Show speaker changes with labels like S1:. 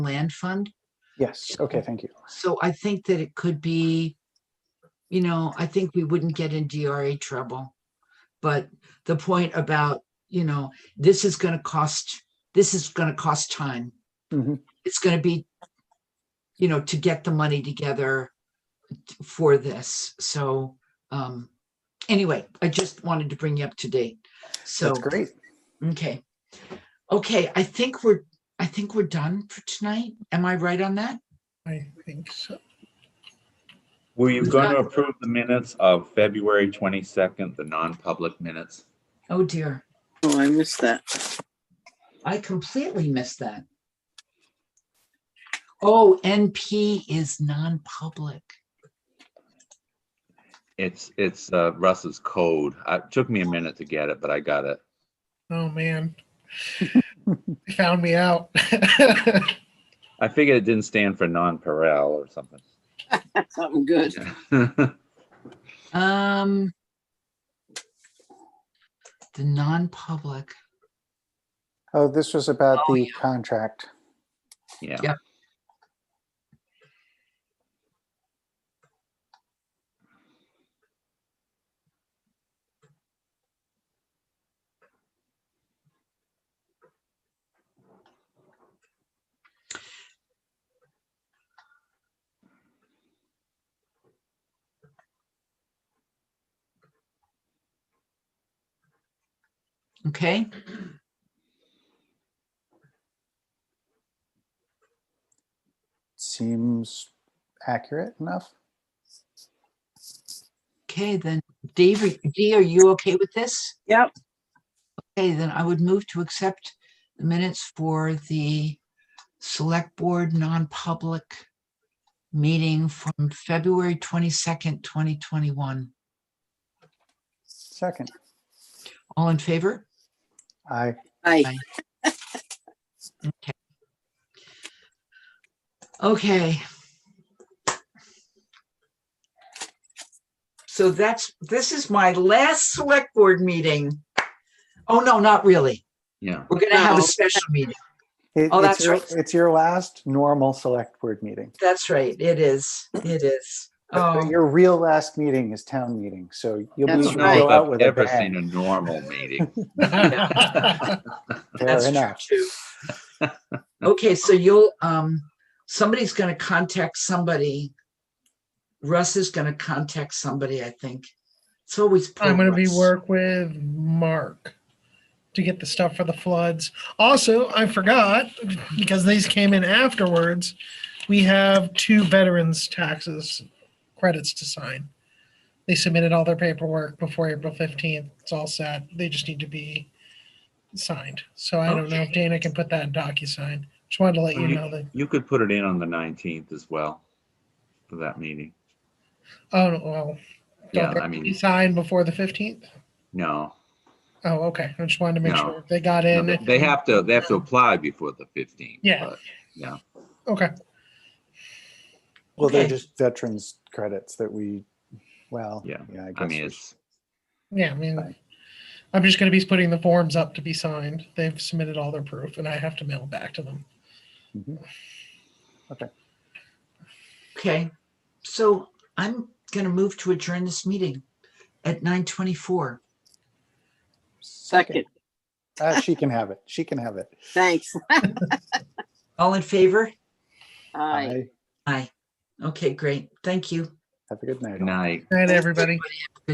S1: land fund.
S2: Yes, okay, thank you.
S1: So I think that it could be, you know, I think we wouldn't get in DRA trouble. But the point about, you know, this is gonna cost, this is gonna cost time.
S2: Mhm.
S1: It's gonna be, you know, to get the money together for this. So, um, anyway, I just wanted to bring you up to date. So,
S2: That's great.
S1: okay. Okay, I think we're, I think we're done for tonight. Am I right on that?
S3: I think so.
S4: Were you
S1: We've
S4: going to
S1: got-
S4: approve the minutes of February 22nd, the non-public minutes?
S1: Oh, dear.
S5: Oh, I missed that.
S1: I completely missed that. Oh, NP is non-public.
S4: It's, it's uh, Russ's code. Uh, It took me a minute to get it, but I got it.
S3: Oh, man. They Found me out.
S4: I figured it didn't stand for non-paral or something.
S5: Something good.
S1: Um. The non-public,
S2: Oh, this was about
S1: Oh,
S2: the contract.
S4: Yeah,
S1: Yeah. okay?
S2: Seems accurate enough.
S1: Okay, then, Dave, are- Dee, are you okay with this?
S5: Yep.
S1: Okay, then I would move to accept the minutes for the select board non-public meeting from February twenty-second, twenty twenty-one.
S2: Second,
S1: All in favor?
S2: I,
S5: Aye.
S1: Okay. So that's, this is my last select board meeting. Oh, no, not really.
S4: yeah.
S1: We're gonna have a
S5: No.
S1: special meeting.
S2: it-
S1: Oh,
S2: it's
S1: that's
S2: your,
S1: right.
S2: it's your last normal select board meeting.
S1: That's right. It is. It is.
S2: But
S1: Oh,
S2: Your real last meeting is town meeting, so you'll
S4: I
S2: be,
S5: That's
S4: don't
S2: you'll go
S4: know if
S2: out
S4: I've
S2: with a
S4: ever seen a
S2: bang.
S4: normal meeting.
S2: Fair
S1: that's true
S2: enough.
S1: too. Okay, so you'll, um, somebody's gonna contact somebody. Russ is gonna contact somebody, I think. It's always. poor
S3: I'm gonna be
S1: Russ.
S3: work with Mark to get the stuff for the floods. Also, I forgot, because these came in afterwards, we have two veterans taxes credits to sign. They submitted all their paperwork before April fifteenth. It's all set. They just need to be signed. So I don't know if Dana can put that in DocuSign. Just wanted to let you
S4: You-
S3: know that,
S4: You could put it in on the 19th as well for that meeting.
S3: oh, well.
S4: Yeah,
S3: don't they
S4: I mean,
S3: Sign before the fifteenth?
S4: no,
S3: Oh, okay. I just wanted to make
S4: No.
S3: sure they got
S4: no,
S3: in.
S4: they- they have to, they have to apply before the 15th.
S3: Yeah.
S4: but-
S3: Okay.
S2: Well, they're
S1: Okay.
S2: just veterans credits that we, well, yeah,
S4: Yeah,
S2: I
S4: I mean,
S2: guess.
S4: it's,
S3: Yeah, I mean,
S2: Fine.
S3: I'm just gonna be putting the forms up to be signed. They've submitted all their proof and I have to mail it back to them.
S2: Mhm.
S1: Okay, so I'm gonna move to adjourn this meeting at nine twenty-four.
S5: Second.
S2: Uh, She can have it. She can have it.
S5: Thanks.
S1: All in favor?
S5: Aye.
S2: Aye.
S1: Aye. Okay, great. Thank you.
S2: Have a good night.
S4: good
S2: all.
S4: night.
S3: Good night, everybody.